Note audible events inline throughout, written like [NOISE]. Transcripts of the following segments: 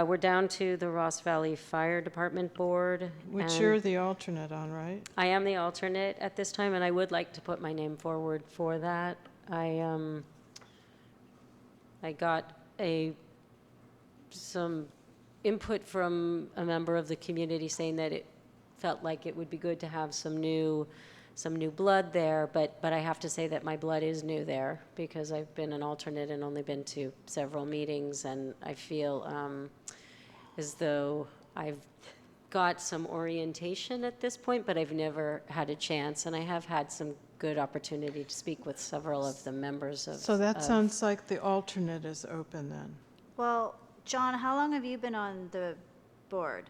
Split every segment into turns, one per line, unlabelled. Uh, We're down to the Ross Valley Fire Department Board.
Which
and
you're the alternate on, right?
I am the alternate at this time, and I would like to put my name forward for that. I, um, I got a, some input from a member of the community saying that it felt like it would be good to have some new, some new blood there, but, but I have to say that my blood is new there, because I've been an alternate and only been to several meetings, and I feel, um, as though I've got some orientation at this point, but I've never had a chance, and I have had some good opportunity to speak with several of the members of.
So that
of-
sounds like the alternate is open then.
Well, John, how long have you been on the board?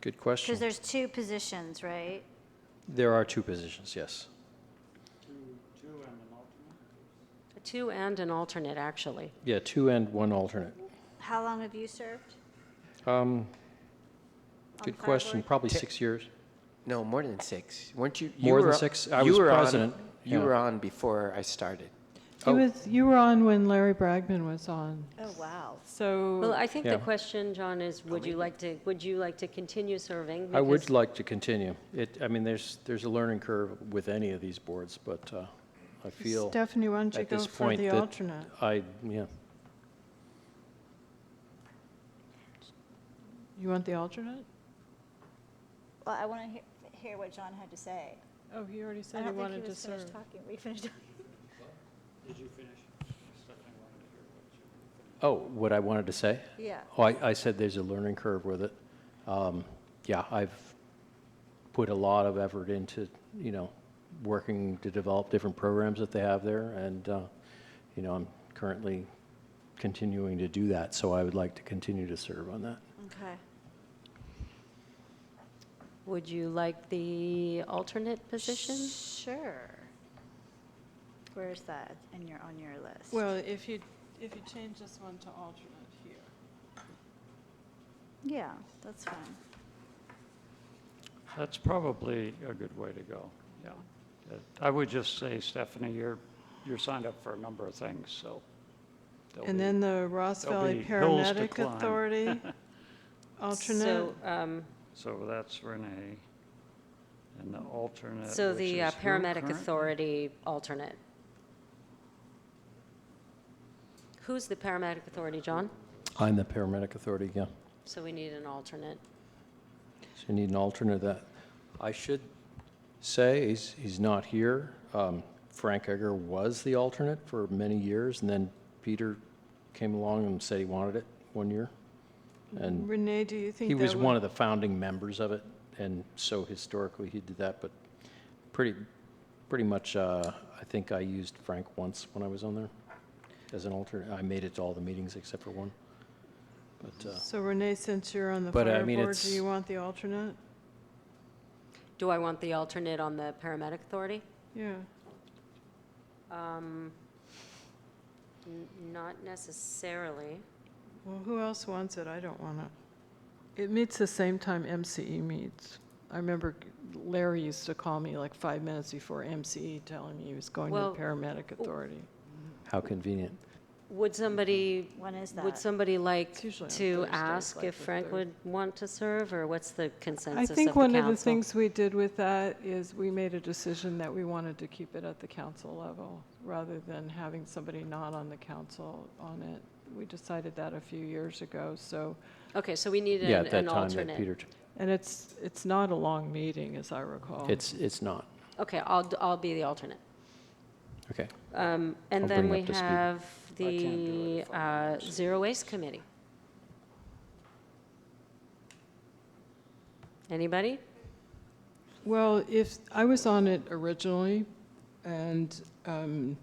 Good
Because
question.
there's two positions, right?
There are two positions, yes.
Two and an alternate, actually.
Yeah, two and one alternate.
How long have you served?
Um,
on
Good
Fire
question,
Board?
probably six years.
No, more than six. Weren't you? you
More than
were-
six? I
you
was
were on-
president,
You
yeah.
were on before I started.
You
Oh.
was, you were on when Larry Bragman was on,
Oh, wow.
Well,
so,
I think the
Mm. Yeah.
question, John, is would you like to, would you like to continue serving?
I would
Because-
like to continue. It, I mean, there's, there's a learning curve with any of these boards, but uh, I feel
Stephanie, why don't you
at
go
this
for
point
the
that
alternate?
I, yeah,
You want the alternate?
Well, I want to hear what John had to say.
Oh, he already said he wanted to serve.
talking. We finished talking.
oh, what I wanted to say?
Yeah.
Oh, I, I said there's a learning curve with it. Um, yeah, I've put a lot of effort into, you know, working to develop different programs that they have there, and, uh, you know, I'm currently continuing to do that, so I would like to continue to serve on that.
Okay.
Would you like the alternate position?
Sure. Where's that in your, on your list?
Well, if you, if you change this one to alternate here.
Yeah, that's fine.
That's probably a good way to go, yeah. Uh, I would just say, Stephanie, you're, you're signed up for a number of things, so. there'll
And
be-
then the Ross
there'll
Valley
be hills to
Paramedic
[LAUGHS]
climb.
Authority, alternate.
So, um,
So that's Renee, and the alternate,
so
which
the uh,
is who
paramedic
current-
authority alternate. Who's the paramedic authority, John?
I'm the paramedic authority, yeah.
So we need an alternate.
So you need an alternate to that. I should say, he's, he's not here. Um, Frank Egger was the alternate for many years, and then Peter came along and said he wanted it one year. And
Renee, do you think
he
that
was
would-
one of the founding members of it, and so historically he did that, but pretty, pretty much, uh, I think I used Frank once when I was on there as an alternate. I made it to all the meetings except for one. But, uh,
So Renee, since you're on the
But, I
fire
mean,
board, do
it's-
you want the alternate?
Do I want the alternate on the paramedic authority?
Yeah,
Um, n- Not necessarily.
well, who else wants it? I don't want it. It meets the same time MCE meets. I remember Larry used to call me like five minutes before MCE telling me he was going to
Well,
paramedic authority.
how convenient.
Would somebody,
When is that?
would somebody like
It's usually on
to
Thursdays,
ask
like
if
the
Frank
third.
would want to serve, or what's the
I
consensus of the
think one of the
council?
things we did with that is we made a decision that we wanted to keep it at the council level rather than having somebody not on the council on it. We decided that a few years ago, so,
Okay, so we need
Yeah,
an
at that
an
time that
alternate.
Peter, t-
and it's, it's not a long meeting, as I recall.
it's, it's not.
Okay, I'll, d- I'll be the alternate.
Okay.
Um, And
I'll
then
bring
we
up to speed.
have
I can't do
the
it if I'm
uh, Zero Waste Committee. Anybody?
Well, if, I was on it originally, and um,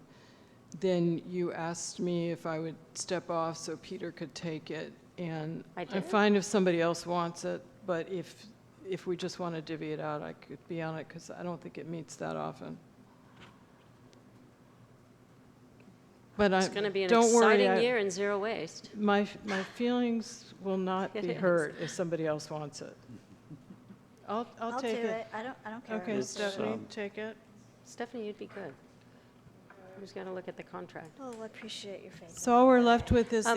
then you asked me if I would step off so Peter could take it, and
I
I'm
did.
fine if somebody else wants it, but if, if we just want to divvy it out, I could be on it, because I don't think it meets that often. But I,
It's going to be an
don't worry,
exciting
I-
year in Zero Waste.
my, my feelings
[LAUGHS]
will not
It
be
is.
hurt if somebody else wants it. I'll, I'll take
do
it.
I don't, I don't care.
Okay,
It's,
Stephanie,
um,
take it.
Stephanie, you'd be good.
Who's going to look at the contract?
Well, appreciate your faith.
So all we're left with is